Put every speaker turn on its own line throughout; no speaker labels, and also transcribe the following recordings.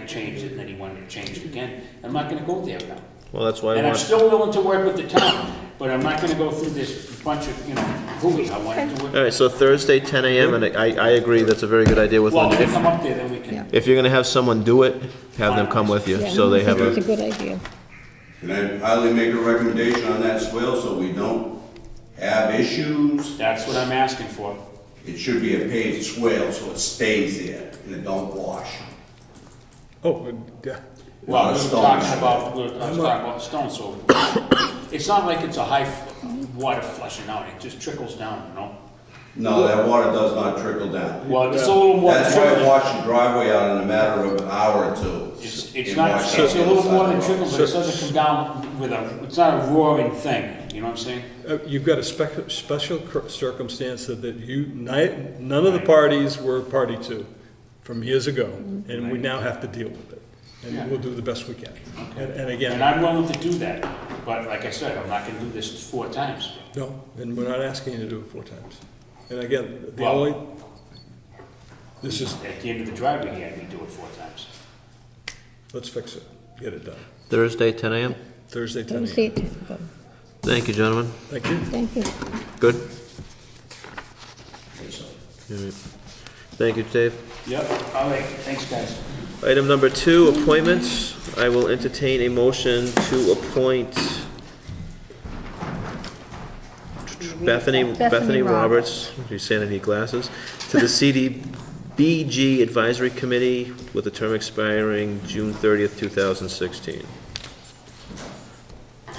changed it, and then he wanted it changed again. I'm not gonna go there now.
Well, that's why I
And I'm
want,
still willing to work with the town, but I'm not gonna go through this bunch of, you know, hooey. I want to
all
work.
right, so Thursday, ten AM, and I, I agree, that's a very good idea with
Well,
Linda.
if they
If,
come up there, then we can.
if you're gonna have someone do it, have them come with you,
Yeah,
so they have
It's a
a,
good idea.
Can I highly make a recommendation on that swale so we don't have issues?
That's what I'm asking for.
It should be a paved swale so it stays there and it don't wash.
Oh, yeah.
Well,
Not
we
a
were
stone.
talking about, we were- I was talking about stone, so it's not like it's a high f- water flushing out, it just trickles down, you know?
No, that water does not trickle down.
Well, it's a little more.
That's why I washed the driveway out in a matter of an hour or two.
It's, it's
It
not,
washed
it's a
out the
little
other
more
side
than
of the road.
trickle, but it doesn't come down with a, it's not a roaring thing, you know what I'm saying?
Uh, You've got a spec- special cir- circumstance that that you, ni- none of the parties were party to from years ago, and we now have to deal with it.
Mm-hmm. Yeah.
And we'll do the best we can. And and again,
And I'm willing to do that, but like I said, I'm not gonna do this four times.
no, and we're not asking you to do it four times. And again, the
Well-
only, this is,
At the end of the driveway, he had me do it four times.
let's fix it, get it done.
Thursday, ten AM?
Thursday, ten
Don't
AM.
say it.
Thank you, gentlemen.
Thank you.
Thank you.
Good? All right. Thank you, Dave.
Yep, all right, thanks, guys.
Item number two, appointments. I will entertain a motion to appoint Bethany, Bethany Roberts, you said I need glasses, to the CDBG Advisory Committee with a term expiring June thirtieth, two thousand sixteen.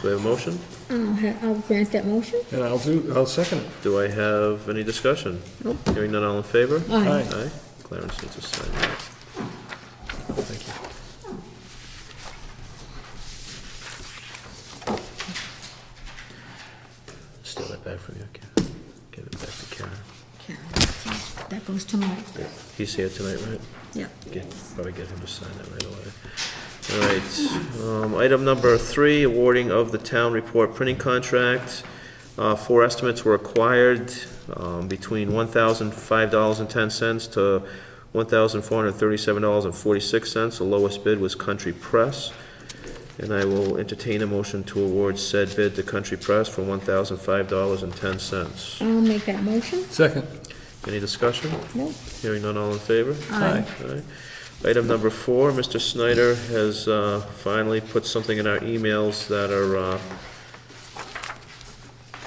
Do I have a motion?
I'll Um, ha- I'll grant that motion.
And I'll do, I'll second it.
Do I have any discussion?
Nope.
Hearing none, all in favor?
Aye.
Aye. Clarence needs to sign that.
Thank you.
Steal that back from you, okay? Give it back to Karen.
Karen, That goes to Mike.
He's here tonight, right?
Yep.
Get, probably get him to sign that right away. All right, um, item number three, awarding of the town report printing contract. Uh, four estimates were acquired, um, between one thousand five dollars and ten cents to one thousand four hundred thirty-seven dollars and forty-six cents. The lowest bid was Country Press. And I will entertain a motion to award said bid to Country Press for one thousand five dollars and ten cents.
I'll make that motion.
Second.
Any discussion?
No?
Hearing none, all in favor?
Aye.
Aye. Item number four, Mr. Snyder has uh, finally put something in our emails that are, uh,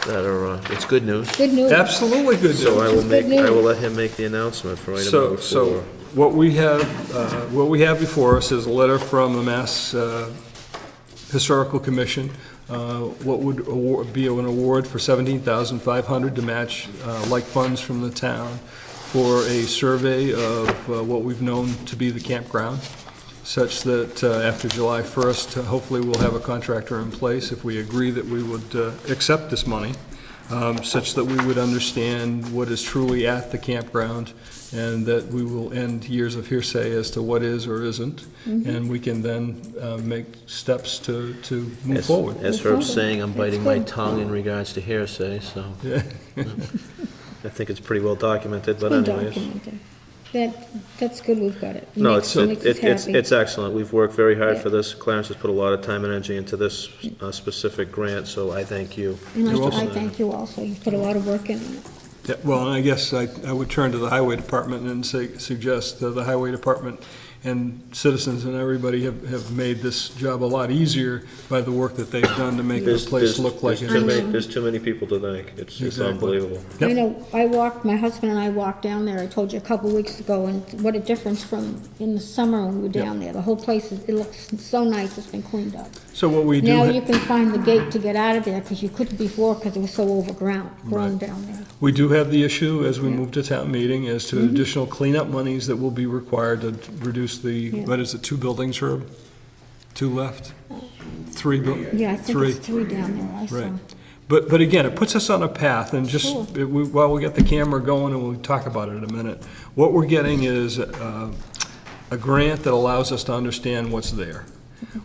that are, uh, it's good news.
Good news.
Absolutely good news.
So I will
It's
make,
good
I will
news.
let him make the announcement for item
So,
number
so
four.
what we have, uh, what we have before us is a letter from the Mass uh, Historical Commission, uh, what would award- be an award for $17,500 to match uh, like funds from the town for a survey of uh, what we've known to be the campground, such that uh, after July 1st, uh, hopefully we'll have a contractor in place if we agree that we would uh, accept this money, um, such that we would understand what is truly at the campground and that we will end years of hearsay as to what is or isn't, and we can then uh, make steps to, to move
As-
forward.
As
Move
Herb's
forward.
saying, I'm
That's
biting my
good.
tongue in regards to hearsay, so
Yeah.
I think it's pretty well documented, but
Been
anyways.
documented. That, that's good we've got it.
No, it's,
Makes-
it-
makes us
it- it's,
happy.
it's excellent. We've worked very hard
Yeah.
for this. Clarence has put a lot of time and energy into this uh, specific grant, so I thank you.
And
You're
I- I
welcome.
thank you also. You put a lot of work in it.
Yeah, well, and I guess I, I would turn to the highway department and say, suggest that the highway department and citizens and everybody have, have made this job a lot easier by the work that they've done to make the
There's-
place
there's-
look like it
There's too
is.
many, there's too many people to thank. It's, it's
Exactly.
unbelievable.
I
Yep.
know, I walked, my husband and I walked down there, I told you a couple weeks ago, and what a difference from in the summer when we were
Yep.
down there. The whole place, is it looks so nice, it's been cleaned up.
So what we do.
Now
ha-
you can find the gate to get out of there, because you couldn't before, because it was so overgrown, grown down there.
We do have the issue, as we move to town meeting, as
Mm-hmm.
to additional cleanup monies that will be required to reduce the,
Yeah.
what is it, two buildings, Herb? Two left? Three? buil-
Yeah, I think it's three down there, I
Right.
saw.
But, but again, it puts us on a path, and just,
Sure.
it- we- while we get the camera going, and we'll talk about it in a minute, what we're getting is uh, a grant that allows us to understand what's there.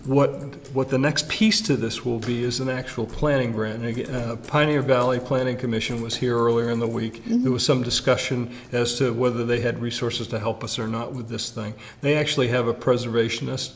What, what the next piece to this will be is an actual planning grant. And again, uh, Pioneer Valley Planning Commission was here earlier in the week. There was some discussion as to whether they had resources to help us or not with this thing. They actually have a preservationist